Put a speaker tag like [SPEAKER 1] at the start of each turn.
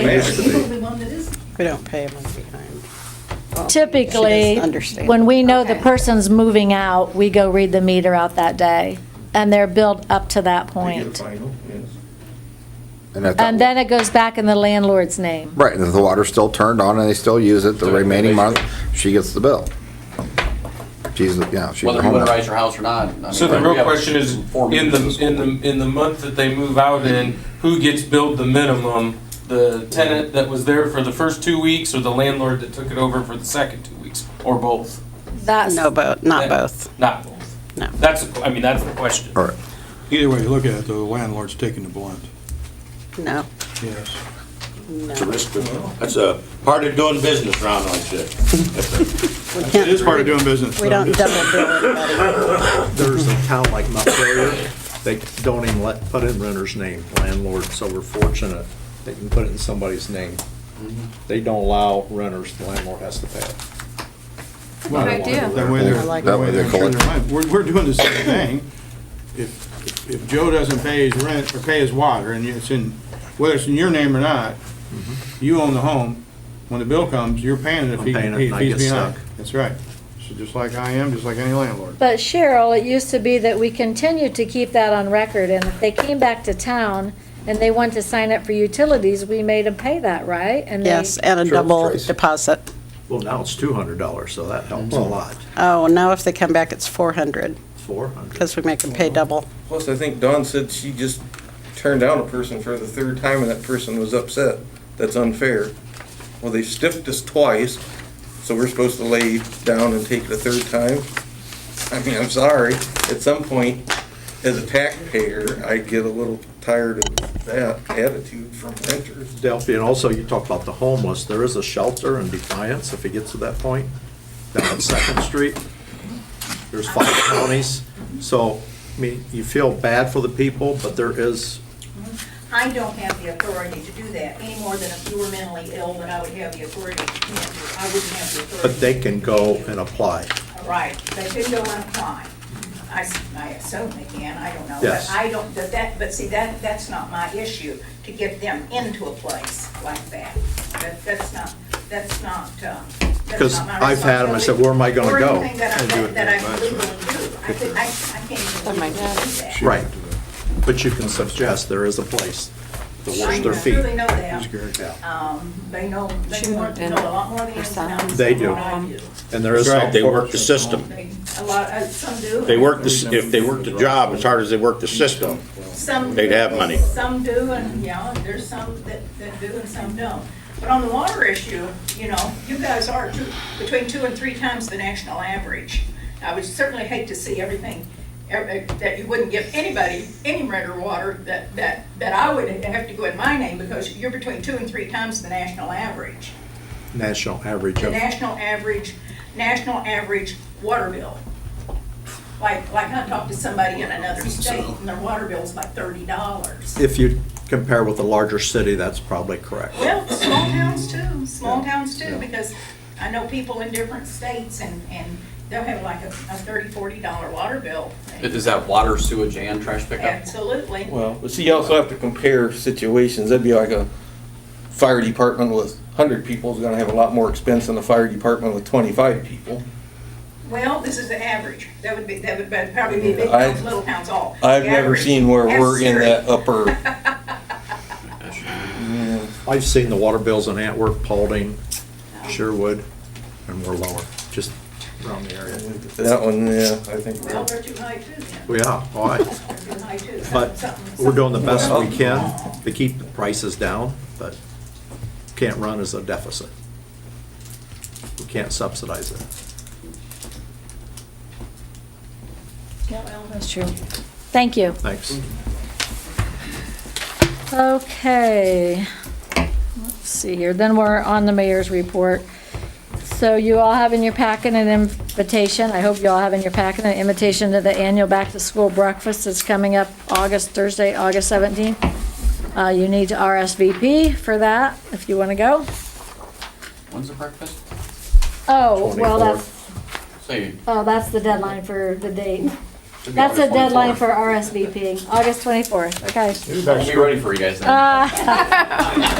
[SPEAKER 1] used to be.
[SPEAKER 2] one that is.
[SPEAKER 3] We don't pay a month behind.
[SPEAKER 4] Typically,
[SPEAKER 3] Understand.
[SPEAKER 4] when we know the
[SPEAKER 2] Okay.
[SPEAKER 4] person's moving out, we go read the meter out that day, and they're billed up to that
[SPEAKER 1] They get a
[SPEAKER 4] point.
[SPEAKER 1] final, yes.
[SPEAKER 5] And if
[SPEAKER 4] And
[SPEAKER 5] that,
[SPEAKER 4] then it goes back in the landlord's name.
[SPEAKER 5] right, and if the water's still turned on and they still use it, the
[SPEAKER 6] So
[SPEAKER 5] remaining month,
[SPEAKER 6] basically-
[SPEAKER 5] she gets the bill. She's, yeah, she's
[SPEAKER 6] Whether
[SPEAKER 5] a
[SPEAKER 6] you
[SPEAKER 5] homeowner.
[SPEAKER 6] winterize your house or not. I mean,
[SPEAKER 7] So the
[SPEAKER 6] we
[SPEAKER 7] real
[SPEAKER 6] have
[SPEAKER 7] question is,
[SPEAKER 6] four
[SPEAKER 7] in the,
[SPEAKER 6] meetings this
[SPEAKER 7] in
[SPEAKER 6] whole
[SPEAKER 7] the, in the month that they move out in, who gets billed the minimum? The tenant that was there for the first two weeks or the landlord that took it over for the second two weeks, or both?
[SPEAKER 4] That's,
[SPEAKER 3] No, both, not
[SPEAKER 7] That-
[SPEAKER 3] both.
[SPEAKER 7] Not both.
[SPEAKER 3] No.
[SPEAKER 7] That's, I mean, that's the question.
[SPEAKER 5] All right.
[SPEAKER 8] Either way you look at it, though, the landlord's taking the blunt,
[SPEAKER 3] No,
[SPEAKER 8] yes.
[SPEAKER 9] It's a risk of- That's a part of doing business around like this.
[SPEAKER 3] we
[SPEAKER 8] It is part
[SPEAKER 3] can't,
[SPEAKER 8] of doing business.
[SPEAKER 3] we
[SPEAKER 8] though.
[SPEAKER 3] don't double bill it, buddy.
[SPEAKER 10] There's a town like Montpelier, they don't even let, put in renter's name, landlord, so we're fortunate they can put it in somebody's name.
[SPEAKER 1] Mm-hmm.
[SPEAKER 10] They don't allow renters, the landlord has to pay it.
[SPEAKER 2] Good idea.
[SPEAKER 8] That way they're,
[SPEAKER 3] I like
[SPEAKER 8] that
[SPEAKER 5] that.
[SPEAKER 8] way they're
[SPEAKER 5] That way
[SPEAKER 8] sure
[SPEAKER 5] they collect.
[SPEAKER 8] they're mine. We're, we're doing the same thing. If, if Joe doesn't pay his rent or pay his water, and it's in, whether it's in your name or not, you own the home, when the bill comes, you're paying it if
[SPEAKER 10] I'm
[SPEAKER 8] he,
[SPEAKER 10] paying it
[SPEAKER 8] if
[SPEAKER 10] and I
[SPEAKER 8] he's
[SPEAKER 10] get
[SPEAKER 8] behind.
[SPEAKER 10] stuck.
[SPEAKER 8] That's right. So just like I am, just like any landlord.
[SPEAKER 4] but Cheryl, it used to be that we continued to keep that on record, and if they came back to town and they wanted to sign up for utilities, we made them pay that, right? And they-
[SPEAKER 3] Yes, and a
[SPEAKER 5] Sure,
[SPEAKER 3] double
[SPEAKER 5] Tracy.
[SPEAKER 3] deposit.
[SPEAKER 10] Well, now it's two hundred dollars, so that helps a lot,
[SPEAKER 3] Oh, now if they come back, it's 400,
[SPEAKER 10] four hundred.
[SPEAKER 3] because we make them pay double.
[SPEAKER 1] Plus, I think Dawn said she just turned down a person for the third time, and that person was upset. That's unfair. Well, they stiffed us twice, so we're supposed to lay down and take it a third time? I mean, I'm sorry. At some point, as a taxpayer, I get a little tired of that attitude from renters.
[SPEAKER 10] Delphi, and also you talk about the homeless, there is a shelter in Defiance, if it gets to that point, down on Second Street. There's five counties, so, I mean, you feel bad for the people, but there is
[SPEAKER 2] I don't have the authority to do that, any more than if you were mentally ill, that I would have the authority. to do it. I wouldn't have the authority.
[SPEAKER 10] But they can go and apply.
[SPEAKER 2] Right, they can go and apply. I, s- I assume they can, I don't know.
[SPEAKER 10] Yes.
[SPEAKER 2] But I don't, but that, but see, that, that's not my issue, to get them into a place like that. That, that's not, that's not, uh, that's
[SPEAKER 10] Because
[SPEAKER 2] not my responsibility.
[SPEAKER 10] I've had 'em, I said, "Where am I gonna go?"
[SPEAKER 2] Or anything that I,
[SPEAKER 10] And do it
[SPEAKER 2] that I
[SPEAKER 10] through
[SPEAKER 2] can legally do. I could, I, I can't
[SPEAKER 3] Oh
[SPEAKER 2] even legally do that.
[SPEAKER 10] Right. But you can suggest there is a place to
[SPEAKER 2] I
[SPEAKER 10] wash their
[SPEAKER 2] Truly
[SPEAKER 10] feet.
[SPEAKER 2] know that.
[SPEAKER 10] Yeah.
[SPEAKER 2] Um, they know, they more- know a lot more than us about this
[SPEAKER 10] They
[SPEAKER 2] than
[SPEAKER 10] do.
[SPEAKER 2] what I do.
[SPEAKER 10] And there is.
[SPEAKER 9] That's right, they
[SPEAKER 10] help for-
[SPEAKER 9] work the system.
[SPEAKER 2] They, a lot, uh, some do.
[SPEAKER 9] They work, the s- if they work the job as hard as they work the system,
[SPEAKER 2] Some.
[SPEAKER 9] They'd have money.
[SPEAKER 2] Some do, and, yeah, there's some that, that do and some don't. But on the water issue, you know, you guys are two, between two and three times the national average. I would certainly hate to see everything, every- that you wouldn't give anybody, any renter water that, that, that I would have to go in my name because you're between two and three times the national average.
[SPEAKER 10] National average
[SPEAKER 2] The
[SPEAKER 10] of,
[SPEAKER 2] national average, national average water bill. Like, like I talked to somebody in another state and their water bill's like thirty dollars.
[SPEAKER 10] if you compare with a larger city, that's probably correct.
[SPEAKER 2] Well, small towns too, small towns too, because I know people in different states and, and they'll have like a, a thirty, forty dollar water bill.
[SPEAKER 6] week. Is that water, sewage, and trash pickup?
[SPEAKER 2] Absolutely.
[SPEAKER 1] Well, but see, you also have to compare situations. That'd be like a fire department with hundred people is gonna have a lot more expense than a fire department with twenty-five people.
[SPEAKER 2] Well, this is the average. That would be, that would be- probably be big
[SPEAKER 1] I-
[SPEAKER 2] towns, little towns all.
[SPEAKER 1] I've
[SPEAKER 2] The
[SPEAKER 1] never
[SPEAKER 2] average.
[SPEAKER 1] seen where
[SPEAKER 2] That's
[SPEAKER 1] we're in
[SPEAKER 2] serious.
[SPEAKER 1] that upper.
[SPEAKER 10] I've seen the water bills in Antwerp, Paulding, Sherwood, and we're lower, just around the area.
[SPEAKER 1] That one, yeah, I think.
[SPEAKER 2] Well, they're too high too then.
[SPEAKER 10] We are, all right.
[SPEAKER 2] They're too high too.
[SPEAKER 10] But
[SPEAKER 2] Something-
[SPEAKER 10] we're doing the best
[SPEAKER 2] something-
[SPEAKER 10] we can to keep the prices down, but can't run as a deficit. We can't subsidize it.
[SPEAKER 2] Yeah, well,
[SPEAKER 4] That's true. Thank you.
[SPEAKER 10] Thanks.
[SPEAKER 4] Okay, let's see here, then we're on the mayor's report. So you all have in your packet an invitation, I hope you all have in your packet an invitation to the annual back-to-school breakfast that's coming up August, Thursday, August 17th. Uh, you need to RSVP for that, if you want to go.
[SPEAKER 6] When's the breakfast?
[SPEAKER 4] Oh, well, that's,
[SPEAKER 6] Say,
[SPEAKER 4] oh, that's the deadline for the date.
[SPEAKER 6] should be
[SPEAKER 4] That's a
[SPEAKER 6] August
[SPEAKER 4] deadline
[SPEAKER 6] 24th.
[SPEAKER 4] for RSVP, August 24th, okay. Uh,
[SPEAKER 6] I'll be ready for you guys then.